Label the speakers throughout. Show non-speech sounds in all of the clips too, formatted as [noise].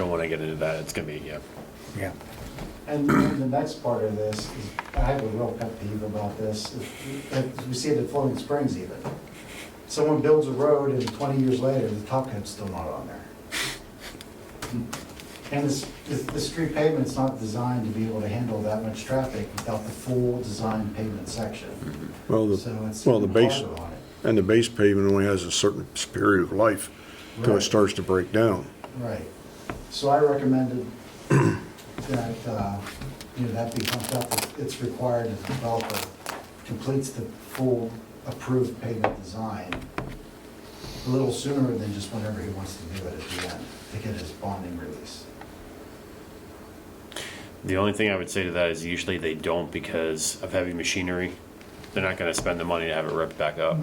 Speaker 1: don't want to get into that, it's going to be, yeah.
Speaker 2: Yeah.
Speaker 3: And the next part of this, is I have a real pet peeve about this, If- if we see it at Floating Springs even. Someone builds a road and twenty years later, the top coat's still not on there. And this, this- the street pavement's not designed to be able to handle that much traffic without the full design pavement section.
Speaker 4: Well,
Speaker 3: So
Speaker 4: the,
Speaker 3: it's
Speaker 4: Mm-hmm. well, the base,
Speaker 3: harder on it.
Speaker 4: and the base pavement only has a certain period of life till
Speaker 3: Right.
Speaker 4: it starts to break down.
Speaker 3: Right. So I recommended that, uh, you know, that be bumped up. It's- It's required that the developer completes the full approved pavement design a little sooner than just whenever he wants to do it at the end to get his bonding release.
Speaker 1: The only thing I would say to that is usually they don't because of heavy machinery. They're not going to spend the money to have it ripped back up.
Speaker 3: I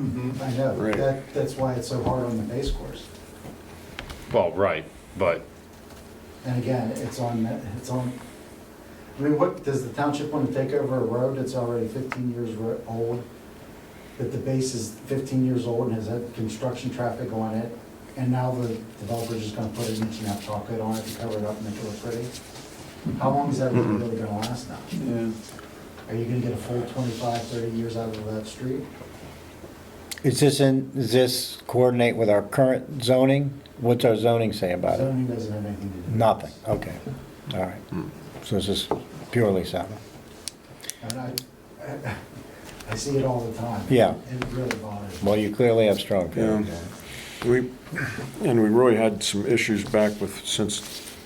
Speaker 3: know,
Speaker 4: Right.
Speaker 3: that, that's why it's so hard on the base course.
Speaker 1: Well, right, but
Speaker 3: And again, it's on, it's on, I mean, what, does the township want to take over a road that's already fifteen years ro- old? That the base is fifteen years old and has had construction traffic on it? And now the developer's just gonna put an inch and a half chocolate on it to cover it up and make it look pretty? How long is that road
Speaker 2: Mm-hmm.
Speaker 3: really gonna last now? Are you gonna get a full 25, 30 years out of that street?
Speaker 2: Is this in, does this coordinate with our current zoning? What's our zoning say about it?
Speaker 3: Zoning doesn't have anything to do with this.
Speaker 2: Nothing, okay, all right. So this is purely sound.
Speaker 3: And I, I- [laughs] I see it all the time.
Speaker 2: Yeah.
Speaker 3: It really bothers me.
Speaker 2: Well, you clearly have strong feelings.
Speaker 4: Yeah. Um, We, and we really had some issues back with, since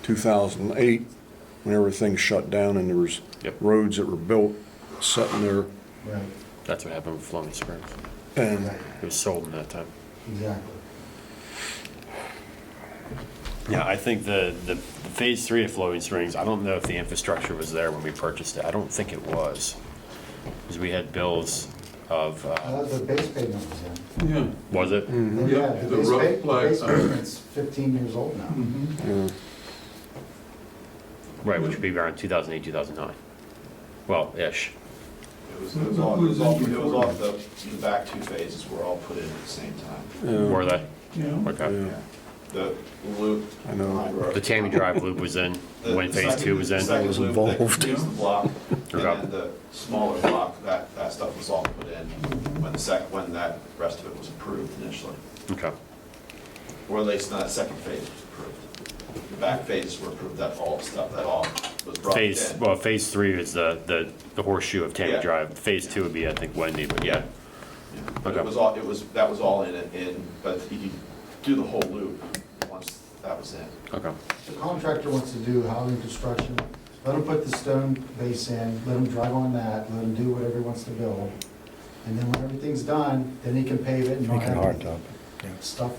Speaker 4: 2008, when everything shut down and there was
Speaker 1: Yep.
Speaker 4: roads that were built, sitting there,
Speaker 3: Right,
Speaker 1: that's what happened with Flowing Springs.
Speaker 4: and,
Speaker 3: right,
Speaker 1: It was sold in that time.
Speaker 3: exactly.
Speaker 1: Yeah, I think the, the phase three of Flowing Springs, I don't know if the infrastructure was there when we purchased it. I don't think it was. Because we had bills of,
Speaker 3: I
Speaker 1: uh,
Speaker 3: thought the base pavement was in.
Speaker 5: Yeah,
Speaker 1: was it?
Speaker 3: Hmm.
Speaker 5: Yeah,
Speaker 3: the
Speaker 5: the
Speaker 3: base
Speaker 5: rough uh, Hmm.
Speaker 3: pa-
Speaker 5: flag.
Speaker 3: Base pavement's fifteen years old now.
Speaker 4: yeah,
Speaker 1: Right, which would be around 2008, 2009. Well, ish.
Speaker 6: It was, it was all, it was all, it was all the, the back two phases were all put in at the same time.
Speaker 1: Were they?
Speaker 5: yeah.
Speaker 1: Okay.
Speaker 4: yeah,
Speaker 6: The loop.
Speaker 4: I know.
Speaker 6: behind Road-
Speaker 1: The Tammy Drive loop was in
Speaker 6: the-
Speaker 1: when
Speaker 6: the
Speaker 1: phase
Speaker 6: second-
Speaker 1: two was in.
Speaker 6: The second
Speaker 4: Was
Speaker 6: [laughs] loop that
Speaker 4: involved.
Speaker 6: completes the block, and
Speaker 1: [laughs] Forgot.
Speaker 6: then the smaller block, that, that stuff was all put in when the sec, when that rest of it was approved initially.
Speaker 1: Okay.
Speaker 6: Or at least that second phase was approved. The back phases were approved, that all stuff, that all was brought in.
Speaker 1: Phase, well, phase three is the, the, the horseshoe of Tammy
Speaker 6: Yeah.
Speaker 1: Drive. Phase two would be, I think, Wendy, but yeah.
Speaker 6: Yeah, But
Speaker 1: Okay.
Speaker 6: it was all, it was, that was all in, it. in, but you could do the whole loop once that was in.
Speaker 1: Okay.
Speaker 3: The contractor wants to do housing construction, let him put the stone base in, let him drive on that, let him do whatever he wants to build. And then when everything's done, then he can pave it and
Speaker 2: You
Speaker 3: not
Speaker 2: can hard
Speaker 3: have
Speaker 2: top it. yeah.
Speaker 3: stuff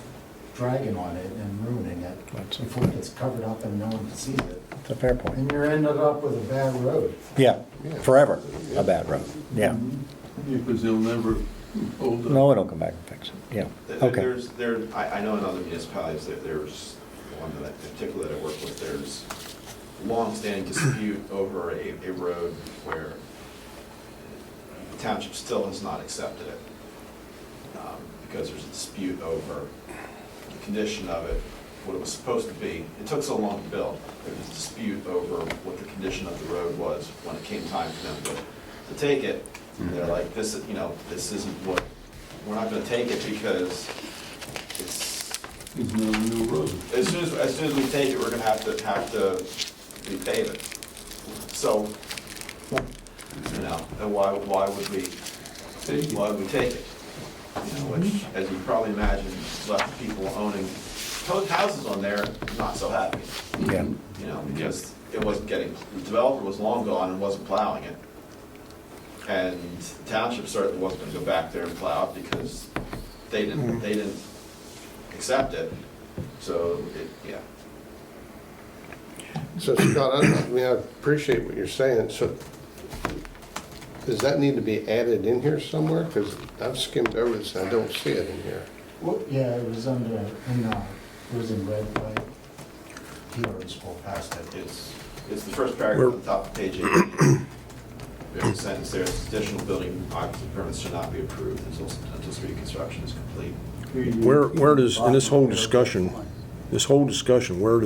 Speaker 3: dragging on it and ruining it
Speaker 2: That's-
Speaker 3: before it gets covered up and no one sees it.
Speaker 2: It's a fair point.
Speaker 3: And you're ended up with a bad road.
Speaker 2: Yeah, forever a bad road, yeah.
Speaker 5: Because they'll never hold up.
Speaker 2: No, it'll come back and fix it, yeah,
Speaker 6: There-
Speaker 2: okay.
Speaker 6: There's, there, I, I know in other municipalities, there, there's one that, in particular that I work with, there's longstanding dispute over a, a road where the township still has not accepted it. um, Because there's a dispute over the condition of it, what it was supposed to be. It took so long to build. There was a dispute over what the condition of the road was when it came time for them to, to take it. And They're like, this, is- you know, this isn't what, we're not gonna take it because it's,
Speaker 5: There's no new road.
Speaker 6: as soon as, as soon as we take it, we're gonna have to, have to repave it. So, you know, then why, why would we,
Speaker 5: Take it.
Speaker 6: why would we take it? You know, which, as you probably imagine, left people owning to- houses on there not so happy,
Speaker 2: Yeah,
Speaker 6: you know, because it wasn't getting, the developer was long gone and wasn't plowing it. And the township certainly wasn't gonna go back there and plow it because they didn't, they didn't accept it. So, it, yeah,
Speaker 7: So Scott, I I mean, I appreciate what you're saying, so does that need to be added in here somewhere? Because I've skimmed over this and I don't see it in here.
Speaker 3: Well, yeah, it was under, in, uh, it was in red, but he already spoke past it.
Speaker 6: It's, it's the first paragraph at the top of page 18. There's a sentence there, additional building occupancy permits should not be approved until, until street construction is complete.
Speaker 5: Here you go.
Speaker 4: Where, where does, in this whole discussion, this whole discussion, where